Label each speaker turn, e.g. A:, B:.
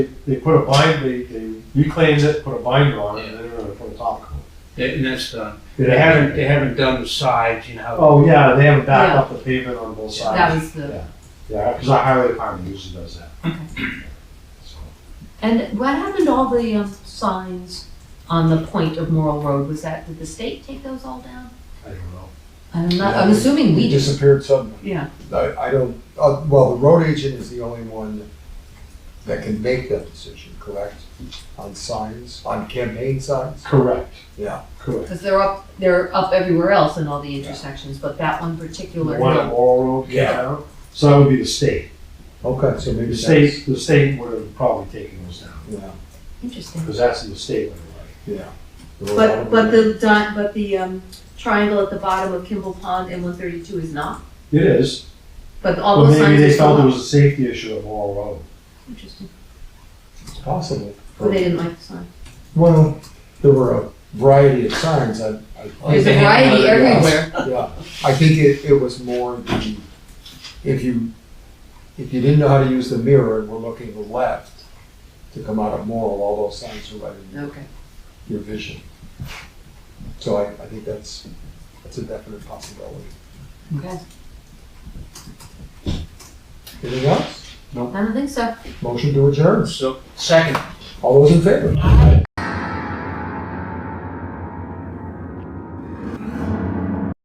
A: They put a bind, they, they reclaimed it, put a binder on it, and then they're gonna put a top coat.
B: They- And that's done.
A: They
B: They
A: haven't-
B: haven't, they haven't done the sides, you know.
A: Oh, yeah, they haven't backed
C: Yeah.
A: up the pavement on both
C: That
A: sides.
C: was the,
A: Yeah, because our highway department usually does that. So,
C: and what happened to all the um, signs on the point of Morrill Road? Was that, did the state take those all down?
A: I don't know.
C: I'm not, I'm assuming we
D: He
C: just,
D: disappeared suddenly.
C: yeah.
D: I, I don't, uh, well, the road agent is the only one that can make that decision, correct? On signs, on campaign signs?
A: Correct.
D: Yeah.
A: Correct.
C: Because they're up, they're up everywhere else in all the intersections, but that one
A: The
C: particular.
A: one at Laurel Road came
D: Yeah.
A: down, so that would be the state.
D: Okay, so maybe
A: The
D: that's.
A: state, the state would have probably taken those down,
D: Yeah,
C: Interesting.
A: because that's the state right away.
D: yeah. The road
E: But, but
D: agent-
E: the, di- but the um, triangle at the bottom of Kimball Pond and one thirty-two is not,
A: It is,
E: but all
A: but
E: those
A: maybe
E: signs are
A: they felt it
E: still up.
A: was a safety issue at Laurel Road.
E: Interesting.
D: It's possible.
E: Or they didn't like the sign.
D: Well, there were a variety of signs, I, I.
C: Oh. There's a variety everywhere.
D: Yeah, I think it, it was more the, if you, if you didn't know how to use the mirror and were looking left to come out of Morrill, all those signs were right in your-
C: Okay.
D: your vision. So I, I think that's, that's a definite possibility.
C: Okay.
D: Anything else?
C: I don't think so.
D: Motion to adjourn.
B: So, second.
D: All those in favor?